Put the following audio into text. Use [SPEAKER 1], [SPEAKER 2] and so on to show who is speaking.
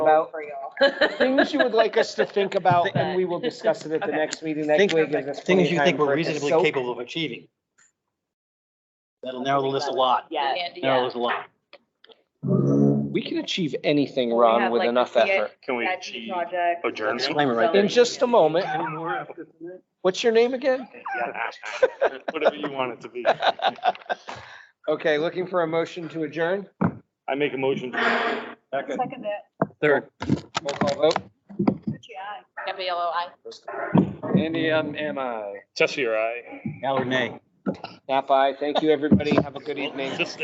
[SPEAKER 1] about,
[SPEAKER 2] for y'all.
[SPEAKER 1] things you would like us to think about, and we will discuss it at the next meeting
[SPEAKER 3] Things-
[SPEAKER 1] next week. gives us plenty
[SPEAKER 3] Things
[SPEAKER 1] of
[SPEAKER 3] you
[SPEAKER 1] time
[SPEAKER 3] think
[SPEAKER 1] for
[SPEAKER 3] we're
[SPEAKER 1] it to
[SPEAKER 3] reasonably
[SPEAKER 1] soak.
[SPEAKER 3] capable of achieving. That'll narrow the list a lot.
[SPEAKER 2] Yeah.
[SPEAKER 3] Narrow the list a lot.
[SPEAKER 1] We can achieve anything,
[SPEAKER 2] have,
[SPEAKER 1] Ron, with
[SPEAKER 2] like,
[SPEAKER 1] enough
[SPEAKER 2] the CA
[SPEAKER 1] effort.
[SPEAKER 4] Can we Oh,
[SPEAKER 2] Statue
[SPEAKER 4] achieve
[SPEAKER 2] project.
[SPEAKER 4] adjournment?
[SPEAKER 3] Disclaimer right there.
[SPEAKER 1] In just a moment. What's your name again?
[SPEAKER 4] Yeah, Whatever you want it to be.
[SPEAKER 1] Okay, looking for a motion to adjourn.
[SPEAKER 4] I make a motion.
[SPEAKER 2] Second that.
[SPEAKER 3] Third.
[SPEAKER 1] Roll call vote.
[SPEAKER 2] Gabriella, I.
[SPEAKER 1] Andy, um, am I?
[SPEAKER 4] Tessie, your eye.
[SPEAKER 3] Allard, nay.
[SPEAKER 1] Nap I. Thank you, everybody. Have a good evening.
[SPEAKER 4] Just